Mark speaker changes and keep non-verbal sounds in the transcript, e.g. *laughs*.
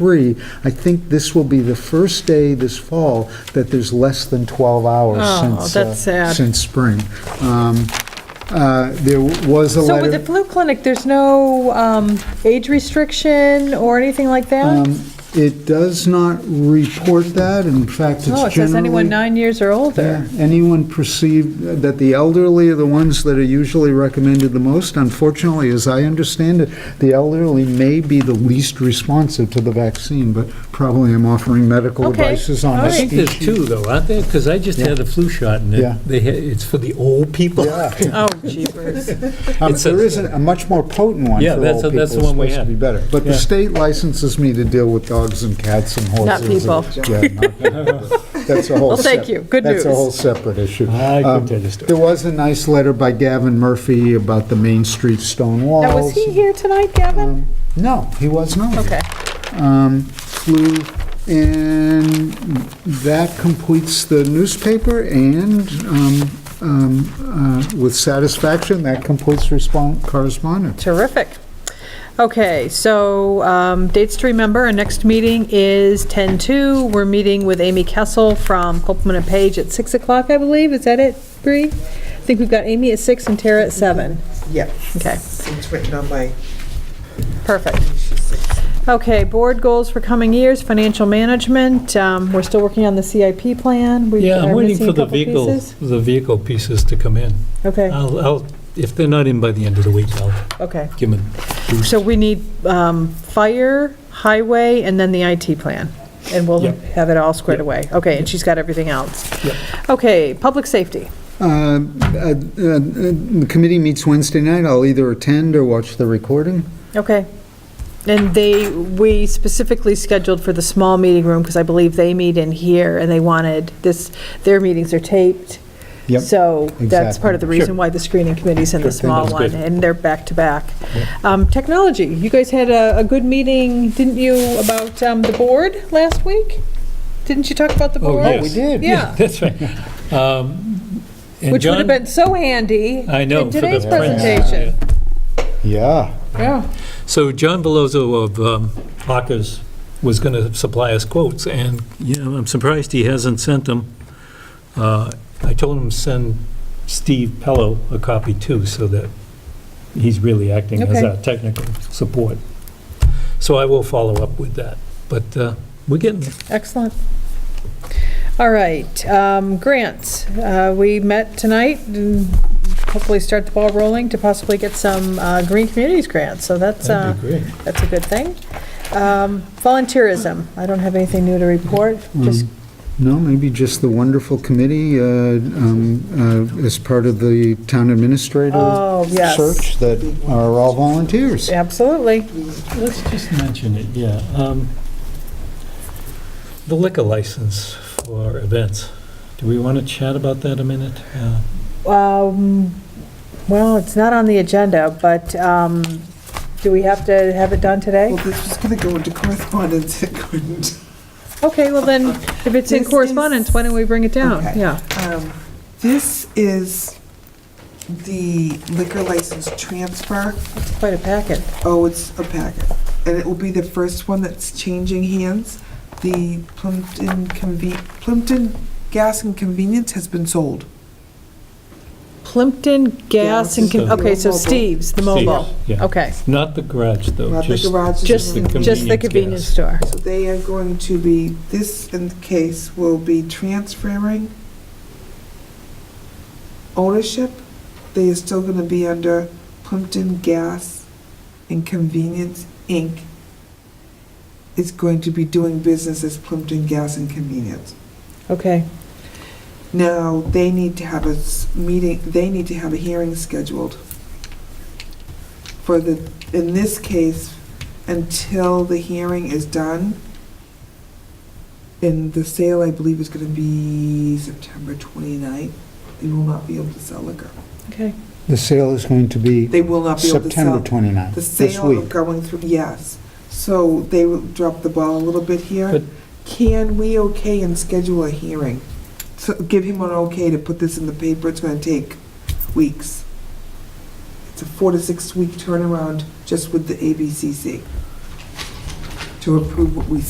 Speaker 1: three, I think this will be the first day this fall that there's less than 12 hours
Speaker 2: Oh,
Speaker 1: since, uh,
Speaker 2: that's sad.
Speaker 1: since spring. Um, uh, There was a
Speaker 2: So with the
Speaker 1: letter,
Speaker 2: flu clinic, there's no um, age restriction or anything like that?
Speaker 1: um, it does not report that, in fact, it's generally...
Speaker 2: Oh, it says anyone nine years or older.
Speaker 1: Yeah, Anyone perceived that the elderly are the ones that are usually recommended the most? Unfortunately, as I understand it, the elderly may be the least responsive to the vaccine, but probably I'm offering medical
Speaker 2: Okay,
Speaker 1: advices on
Speaker 2: all
Speaker 1: a
Speaker 2: right.
Speaker 3: I think
Speaker 1: steep
Speaker 3: there's two, though, aren't there? Because I just had the flu shot, and
Speaker 1: Yeah.
Speaker 3: it- they, had- it's for the old people.
Speaker 1: Yeah,
Speaker 2: Oh,
Speaker 1: *laughs*
Speaker 2: jeepers.
Speaker 1: Um,
Speaker 3: It says-
Speaker 1: there is a a much more potent one
Speaker 3: Yeah,
Speaker 1: for
Speaker 3: that's-
Speaker 1: old people.
Speaker 3: that's the
Speaker 1: It's
Speaker 3: one we
Speaker 1: supposed to
Speaker 3: had.
Speaker 1: be better. But the
Speaker 3: Yeah.
Speaker 1: state licenses me to deal with dogs and cats and horses.
Speaker 2: Not
Speaker 1: and- yeah, not people. That's
Speaker 2: *laughs*
Speaker 1: a whole.
Speaker 2: Well, thank
Speaker 1: sep-
Speaker 2: you. Good
Speaker 1: That's a
Speaker 2: news.
Speaker 1: whole separate issue.
Speaker 3: I could
Speaker 1: Um,
Speaker 3: tell you a story.
Speaker 1: There was a nice letter by Gavin Murphy about the Main Street stone walls.
Speaker 2: Now, was he here tonight,
Speaker 1: Um,
Speaker 2: Gavin?
Speaker 1: No, he was not.
Speaker 2: Okay.
Speaker 1: Um, Flew, and that completes the newspaper, and um, um, uh, with satisfaction, that completes respon- correspondence.
Speaker 2: Terrific. Okay, so um, dates to remember, our next meeting is 10/2. We're meeting with Amy Kessel from Copeland and Page at 6 o'clock, I believe. Is that it, Bree? I think we've got Amy at 6 and Tara at 7.
Speaker 4: Yeah,
Speaker 2: Okay,
Speaker 4: it's written on my
Speaker 2: perfect. Okay, board goals for coming years, financial management, um, we're still working on the CIP plan. We
Speaker 3: Yeah, I'm
Speaker 2: are
Speaker 3: waiting
Speaker 2: missing a
Speaker 3: for the
Speaker 2: couple
Speaker 3: vehicle,
Speaker 2: pieces.
Speaker 3: the vehicle pieces to come in.
Speaker 2: Okay,
Speaker 3: I'll, I'll, if they're not in by the end of the week, I'll
Speaker 2: okay.
Speaker 3: give them.
Speaker 2: So we need um, fire, highway, and then the IT plan. And we'll
Speaker 3: Yep.
Speaker 2: have it all squared away. Okay, and she's got everything else.
Speaker 3: Yep.
Speaker 2: Okay, public safety.
Speaker 1: Uh, uh, uh, The committee meets Wednesday night. I'll either attend or watch the recording.
Speaker 2: Okay. And they, we specifically scheduled for the small meeting room because I believe they meet in here and they wanted this, their meetings are taped.
Speaker 1: Yep.
Speaker 2: So that's part of
Speaker 1: Exactly.
Speaker 2: the
Speaker 1: Sure.
Speaker 2: reason why the screening committee's in
Speaker 1: Sure
Speaker 2: the
Speaker 1: thing.
Speaker 2: small
Speaker 3: That's
Speaker 2: one,
Speaker 3: good.
Speaker 2: and they're back-to-back. Um, Technology, you guys had a, a good meeting, didn't you, about um, the board last week? Didn't you talk about the board?
Speaker 3: Oh, yes.
Speaker 1: did.
Speaker 2: Yeah.
Speaker 3: *laughs* That's right. Um, and
Speaker 2: Which would have
Speaker 3: John-
Speaker 2: been so handy.
Speaker 3: I know,
Speaker 2: In
Speaker 3: for the
Speaker 2: today's
Speaker 3: prints,
Speaker 2: presentation.
Speaker 1: Yeah.
Speaker 2: Yeah.
Speaker 3: So John Velozzo of um, Hawkers was going to supply us quotes, and, you know, I'm surprised he hasn't sent them. Uh, I told him to send Steve Pello a copy too, so that he's really acting as
Speaker 2: Okay.
Speaker 3: our technical support. So I will follow up with that, but uh, we're getting there.
Speaker 2: Excellent. All right, um, grants. Uh, We met tonight and hopefully start the ball rolling to possibly get some uh, Green Communities grants, so that's, uh,
Speaker 3: That'd be great.
Speaker 2: that's a good thing. Um, Volunteerism, I don't have anything new to report, just,
Speaker 1: No, maybe just the wonderful committee uh, um, uh, as part of the town administrator
Speaker 2: oh, yes,
Speaker 1: search that are all volunteers.
Speaker 2: absolutely.
Speaker 3: Let's just mention it, yeah. um, The liquor license for events. Do we want to chat about that a minute? Uh,
Speaker 2: Um, Well, it's not on the agenda, but um, do we have to have it done today?
Speaker 4: Well, this was going to go into correspondence, it couldn't.
Speaker 2: Okay, well then, if it's in
Speaker 4: This is-
Speaker 2: correspondence, why don't we bring it down?
Speaker 4: Okay.
Speaker 2: Yeah.
Speaker 4: Um, This is the liquor license transfer.
Speaker 2: Quite a packet.
Speaker 4: Oh, it's a packet. And it will be the first one that's changing hands. The Plimpton Conve, Plimpton Gas and Convenience has been sold.
Speaker 2: Plimpton Gas and, Con-
Speaker 3: Gas.
Speaker 2: okay, so
Speaker 4: Mobile.
Speaker 2: Steve's, the mobile.
Speaker 3: Steve, yeah.
Speaker 2: Okay,
Speaker 3: Not the garage, though.
Speaker 4: Not the
Speaker 3: just-
Speaker 4: garage.
Speaker 2: just,
Speaker 3: the
Speaker 2: just the
Speaker 3: convenience
Speaker 2: convenience
Speaker 3: gas.
Speaker 2: store.
Speaker 4: So they are going to be, this in case will be transferring ownership. They are still gonna be under Plimpton Gas and Convenience, Inc. Is going to be doing business as Plimpton Gas and Convenience.
Speaker 2: Okay,
Speaker 4: Now, they need to have a s- meeting, they need to have a hearing scheduled for the, in this case, until the hearing is done. And the sale, I believe, is gonna be September 29th. They will not be able to sell liquor.
Speaker 2: okay.
Speaker 1: The sale is going to be
Speaker 4: They will not be able to
Speaker 1: September
Speaker 4: sell.
Speaker 1: 29th,
Speaker 4: The
Speaker 1: this
Speaker 4: sale
Speaker 1: week.
Speaker 4: going through, yes. So they will drop the ball a little bit here.
Speaker 3: But-
Speaker 4: Can we okay and schedule a hearing? So give him an okay to put this in the paper, it's gonna take weeks. It's a four to six week turnaround just with the ABCC. to approve what we